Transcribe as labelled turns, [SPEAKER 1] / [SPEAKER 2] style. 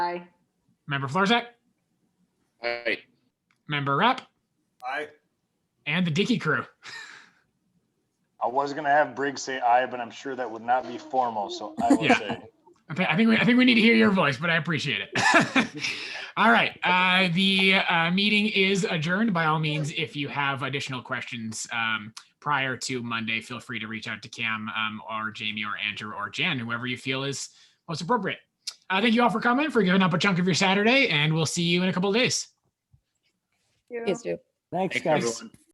[SPEAKER 1] Member Florzak,
[SPEAKER 2] Aye.
[SPEAKER 1] Member Rapp,
[SPEAKER 3] Aye.
[SPEAKER 1] and the Dickey crew.
[SPEAKER 4] I was gonna have Briggs say aye, but I'm sure that would not be formal, so I will
[SPEAKER 1] Yeah.
[SPEAKER 4] say.
[SPEAKER 1] I thi- I think we, I think we need to hear your voice, but I appreciate it. all right, uh, the uh, meeting is adjourned. By all means, if you have additional questions um, prior to Monday, feel free to reach out to Cam um, or Jamie or Andrew or Jan, whoever you feel is most appropriate. Uh, thank you all for coming, for giving up a chunk of your Saturday, and we'll see you in a couple of days.
[SPEAKER 5] you.
[SPEAKER 6] Please do.
[SPEAKER 7] Thanks,
[SPEAKER 2] Thanks,
[SPEAKER 7] guys.
[SPEAKER 2] everyone.